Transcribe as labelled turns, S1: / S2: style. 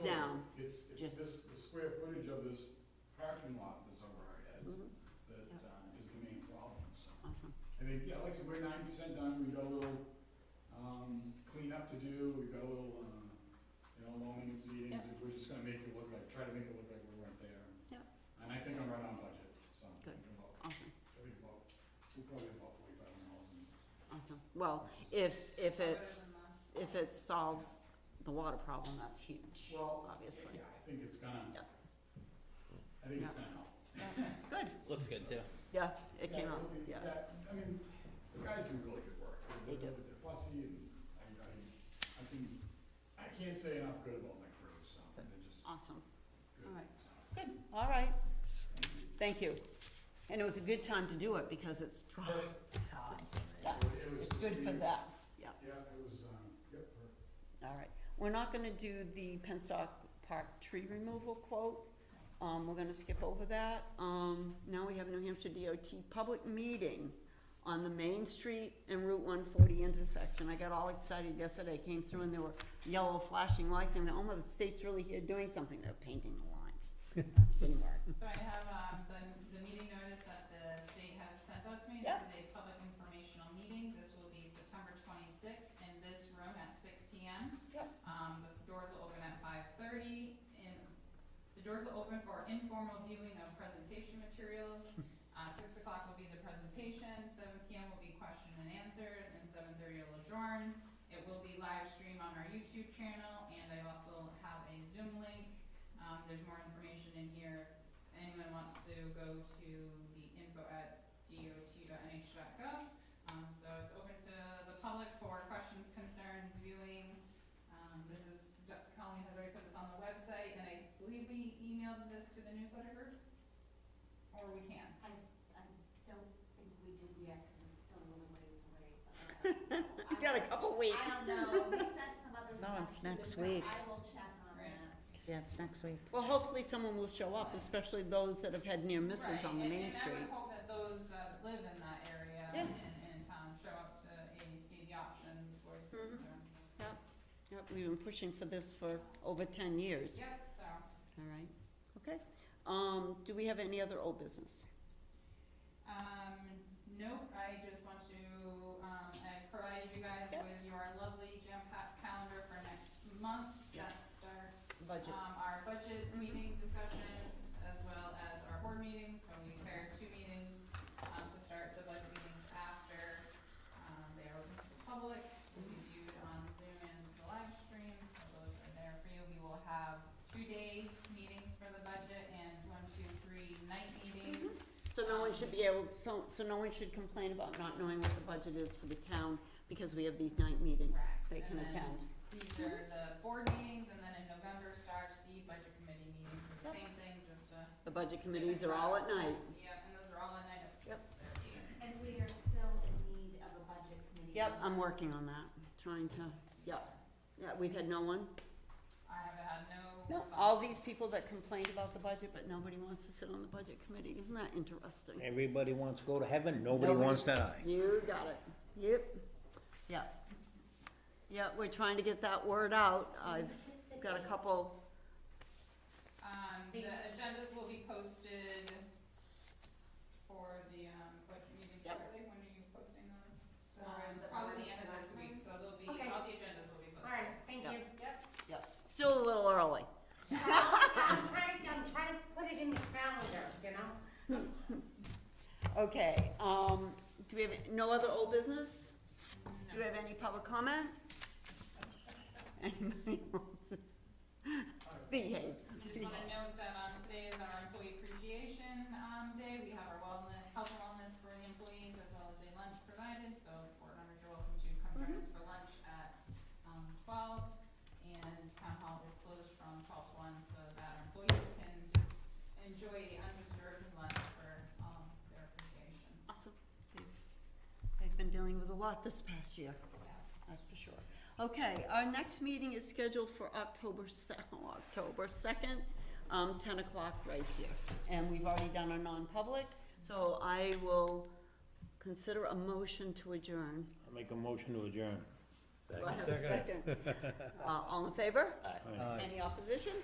S1: down.
S2: It's, it's
S1: Just-
S2: this, the square footage of this parking lot that's over our heads
S1: Mhm.
S2: that,
S1: Yep.
S2: um, is the main problem, so.
S1: Awesome.
S2: I mean, yeah, like I said, we're ninety percent done, we've got a little, um, cleanup to do, we've got a little, uh, you know, loaning and seeding,
S1: Yep.
S2: we're just gonna make it look like, try to make it look like we weren't there.
S1: Yep.
S2: And I think I'm right on budget, so. I
S1: Good.
S2: think about-
S1: Awesome.
S2: I think about, we're probably about forty-five hundred dollars.
S1: Awesome. Well, if, if it's, if it solves the water problem, that's huge,
S2: Well,
S1: obviously.
S2: Yeah, I think it's gonna,
S1: Yep.
S2: I think it's
S1: Yep.
S2: gonna help.
S1: Good.
S3: Looks good too.
S1: Yeah, it came
S2: Yeah,
S1: out,
S2: it'll be-
S1: yeah.
S2: I mean, the guys do really good work.
S1: They do.
S2: They're fussy and I, I, I can, I can't say enough good about my crew, so they're just
S1: Awesome.
S2: good.
S1: All right.
S2: so.
S1: Good. All right. Thank you. And it was a good time to do it because it's dry. Yeah,
S2: So it was
S1: it's good
S2: just
S1: for
S2: the-
S1: that. Yeah.
S2: Yeah, it was, um, yep, perfect.
S1: All right, we're not gonna do the Penstock Park tree removal quote, um, we're gonna skip over that. Um, now we have New Hampshire DOT public meeting on the Main Street and Route one forty intersection. I got all excited yesterday, came through and there were yellow flashing lights, and oh my, the state's really here doing something, they're painting the lines. Didn't work.
S4: So I have, um, the, the meeting notice that the state has sent out to me,
S1: Yeah.
S4: this is a public informational meeting, this will be September twenty-sixth in this room at six P M.
S1: Yep.
S4: Um, the doors will open at five thirty, and the doors will open for informal viewing of presentation materials. Uh, six o'clock will be the presentation, seven P M will be question and answers, and seven thirty will adjourn. It will be live streamed on our YouTube channel, and I also have a Zoom link, um, there's more information in here if anyone wants to go to the info at dot.nh.gov. Um, so it's open to the public for questions, concerns, viewing. Um, this is, Colleen has already put this on the website, and I believe we emailed this to the newsletter group? Or we can?
S5: I don't think we did yet, cause it's still a little ways away. uh,
S1: We got a couple weeks.
S5: I don't know, we sent some other
S1: No,
S5: stuff.
S1: it's
S5: to you,
S1: next
S5: so
S1: week.
S5: I will check on
S4: Right.
S5: that.
S1: Yeah, it's next week. Well, hopefully someone will show up, especially those that have had near misses
S4: Right,
S1: on the
S4: and-
S1: Main Street.
S4: And I would hope that those that live in that area
S1: Yeah.
S4: and and in town show up to ABC, the options, voice the
S1: Mhm.
S4: concerns.
S1: Yep, we've been pushing for this for over ten years.
S4: Yep, so.
S1: All right, okay. Um, do we have any other old business?
S4: Um, nope, I just want to, um, I provided you guys
S1: Yep.
S4: with your lovely jam packed calendar for next month. That starts,
S1: Budgets.
S4: um, our budget
S1: Mhm.
S4: meeting discussions as well as our board meetings, so we paired two meetings, um, to start the budget meetings after, um, they are open to the public, will be viewed on Zoom and the live stream, so those are there for you. We will have two-day meetings for the budget and one, two, three night meetings.
S1: So no one should be able, so, so no one should complain about not knowing what the budget is for the town because we have these night meetings
S4: Correct,
S1: they can
S4: and then
S1: attend.
S4: These are the board meetings, and then in November starts the budget committee meetings, and the same thing, just a.
S1: The budget committees are all at night.
S4: Yeah, and those are all at night at six
S1: Yep.
S4: thirty.
S5: And we are still in need of a budget committee.
S1: Yep, I'm working on that, trying to, yep. Yeah, we've had no one.
S4: I have had no.
S1: All
S4: response.
S1: these people that complained about the budget, but nobody wants to sit on the budget committee. Isn't that interesting?
S3: Everybody wants to go to heaven, nobody
S1: Nobody.
S3: wants to die.
S1: You got it. Yep. Yep. Yep, we're trying to get that word out. I've got a couple,
S4: Um, the agendas will be posted for the, um, budget meeting
S1: Yep.
S4: shortly, when are you posting those? So,
S5: Um, the
S4: probably the
S5: first
S4: end of this
S5: last
S4: week, so they'll be,
S5: Okay.
S4: all the agendas will be posted.
S5: Alright, thank
S1: Yep.
S5: you.
S1: yep, still a little early.
S5: Well, I'm trying, I'm trying to put it in the calendar, you know?
S1: Okay, um, do we have no other old business? Do we
S4: No.
S1: have any public comment? Anybody wants? Behave.
S4: I just wanna note that, um, today is our employee appreciation, um, day, we have our wellness, health and wellness for the employees, as well as a lunch provided, so board members are welcome to come join us for lunch at, um, twelve, and town hall is closed from twelve to one, so that our employees can just enjoy a undisturbed lunch for, um, their appreciation,
S1: Awesome. They've- They've been dealing with a lot this past year,
S4: yes.
S1: that's for sure. Okay, our next meeting is scheduled for October se- October second, um, ten o'clock right here. And we've already done a non-public, so I will consider a motion to adjourn.
S3: I make a motion to adjourn.
S1: Do I have a second? Uh, all in favor?
S3: Aye.
S1: Any opposition?